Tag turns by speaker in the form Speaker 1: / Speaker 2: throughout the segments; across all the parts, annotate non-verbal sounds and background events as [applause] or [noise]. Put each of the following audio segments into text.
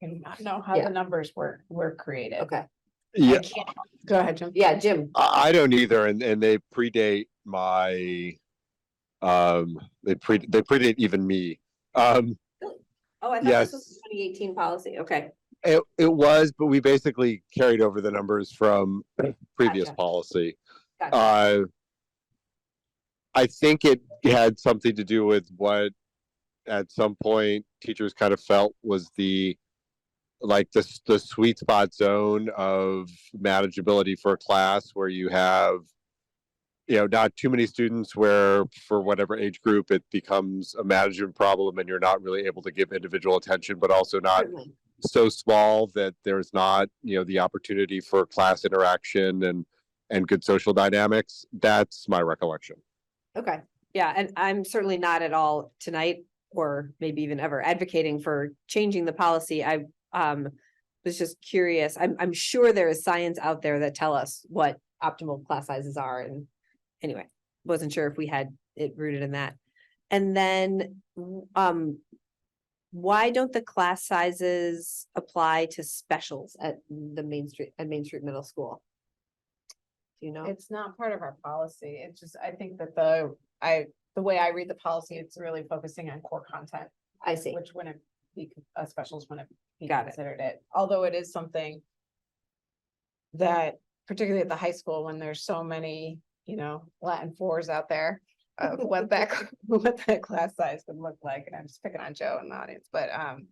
Speaker 1: can know how
Speaker 2: Yeah.
Speaker 1: the numbers were, were created.
Speaker 2: Okay,
Speaker 1: I
Speaker 3: Yeah,
Speaker 1: can't, go ahead, Jim.
Speaker 2: yeah, Jim,
Speaker 3: I, I don't either, and, and they predate my, um, they pre, they predate even me. Um,
Speaker 2: oh, I thought this was twenty eighteen policy, okay,
Speaker 3: it, it was, but we basically carried over the numbers from previous
Speaker 2: Gotcha.
Speaker 3: policy.
Speaker 2: gotcha,
Speaker 3: Uh, I think it had something to do with what, at some point, teachers kind of felt was the, like, the, s- the sweet spot zone of manageability for a class where you have, you know, not too many students where, for whatever age group, it becomes a management problem and you're not really able to give individual attention, but also not
Speaker 2: certainly,
Speaker 3: so small that there's not, you know, the opportunity for class interaction and, and good social dynamics. That's my recollection.
Speaker 2: okay. Yeah, and I'm certainly not at all tonight, or maybe even ever advocating for changing the policy, I, um, was just curious, I'm, I'm sure there is science out there that tell us what optimal class sizes are, and anyway, wasn't sure if we had it rooted in that. And then, w- um, why don't the class sizes apply to specials at the Main Street, at Main Street Middle School? Do you know?
Speaker 1: It's not part of our policy. It's just, I think that the, I, the way I read the policy, it's really focusing on core content,
Speaker 2: I see,
Speaker 1: which wouldn't be, con- uh, specials wouldn't be
Speaker 2: Got it.
Speaker 1: considered it, although it is something that particularly at the high school, when there's so many, you know, Latin fours out there
Speaker 2: [laughs]
Speaker 1: of what that, what that class size would look like. And I'm just picking on Joe in the audience, but, um,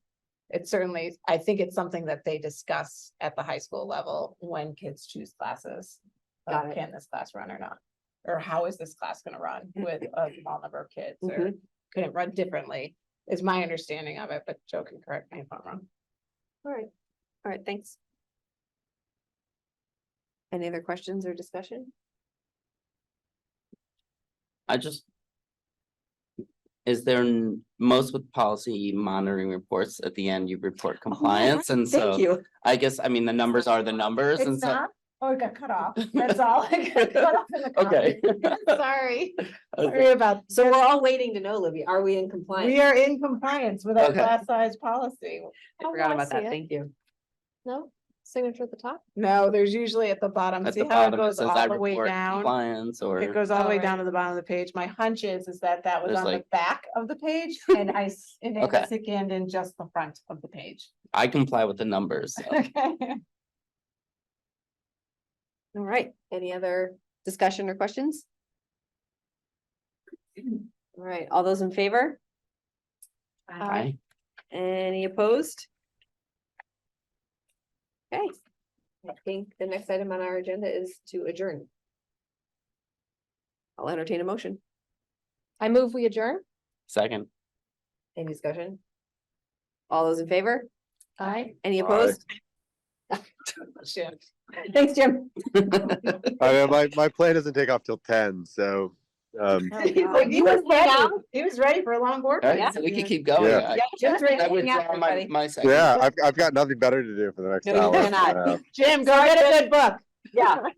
Speaker 1: it certainly, I think it's something that they discuss at the high school level when kids choose classes. of
Speaker 2: Got it.
Speaker 1: Can this class run or not? Or how is this class gonna run with a small number of kids or could it run differently? Is my understanding of it, but Joe can correct me if I'm wrong.
Speaker 2: all right, all right, thanks. Any other questions or discussion?
Speaker 4: I just. Is there, n- most with policy monitoring reports, at the end you report compliance, and
Speaker 2: Thank
Speaker 4: so
Speaker 2: you,
Speaker 4: I guess, I mean, the numbers are the numbers, and
Speaker 1: Oh, It's
Speaker 4: so.
Speaker 1: not, oh, it got cut [laughs] off, that's all. It got cut off in the
Speaker 4: Okay.
Speaker 1: comment. [laughs]
Speaker 4: [laughs]
Speaker 1: Sorry,
Speaker 4: Okay.
Speaker 1: sorry about,
Speaker 2: so we're all waiting to know, Libby, are we in compliance?
Speaker 1: we are in compliance with our
Speaker 4: Okay.
Speaker 1: class size policy.
Speaker 2: I forgot about that, thank you.
Speaker 1: No,
Speaker 2: signature at the top?
Speaker 1: No, there's usually at the bottom,
Speaker 4: At
Speaker 1: see
Speaker 4: the
Speaker 1: how it
Speaker 4: bottom, it
Speaker 1: goes
Speaker 4: says I
Speaker 1: all the way
Speaker 4: report
Speaker 1: down?
Speaker 4: compliance,
Speaker 1: It
Speaker 4: or,
Speaker 1: goes all the way
Speaker 2: Alright.
Speaker 1: down to the bottom of the page. My hunch is, is that that was
Speaker 4: There's
Speaker 1: on the
Speaker 4: like-
Speaker 1: back of the page
Speaker 4: [laughs]
Speaker 1: and I, s- and it
Speaker 4: Okay.
Speaker 1: scanned in just the front of the page.
Speaker 4: I comply with the numbers,
Speaker 1: [laughs]
Speaker 4: so.
Speaker 1: Okay.
Speaker 2: All right, any other discussion or questions? All right, all those in favor?
Speaker 4: I,
Speaker 2: Any opposed? Okay, I think the next item on our agenda is to adjourn. I'll entertain a motion. I move we adjourn.
Speaker 4: second,
Speaker 2: Any discussion? All those in favor?
Speaker 1: Aye.
Speaker 2: Any
Speaker 3: Aye.
Speaker 1: [laughs]
Speaker 2: opposed?
Speaker 1: Sure.
Speaker 2: Thanks, Jim.
Speaker 3: I mean, my, my plane doesn't take off till ten, so,
Speaker 2: [laughs]
Speaker 3: um,
Speaker 1: He's like, Oh, He was ready. He was ready for a long work.
Speaker 4: all
Speaker 1: week.
Speaker 4: right, so we can keep going.
Speaker 3: Yeah.
Speaker 4: I-
Speaker 2: Jim's ready
Speaker 4: I
Speaker 2: to hang out,
Speaker 4: withdraw uh, my,
Speaker 2: everybody.
Speaker 4: my second.
Speaker 3: yeah, I've, I've got nothing better to do for the next
Speaker 2: No, you
Speaker 3: hour.
Speaker 2: cannot.
Speaker 3: Uh,
Speaker 1: Jim, go get a good book.
Speaker 2: Yeah,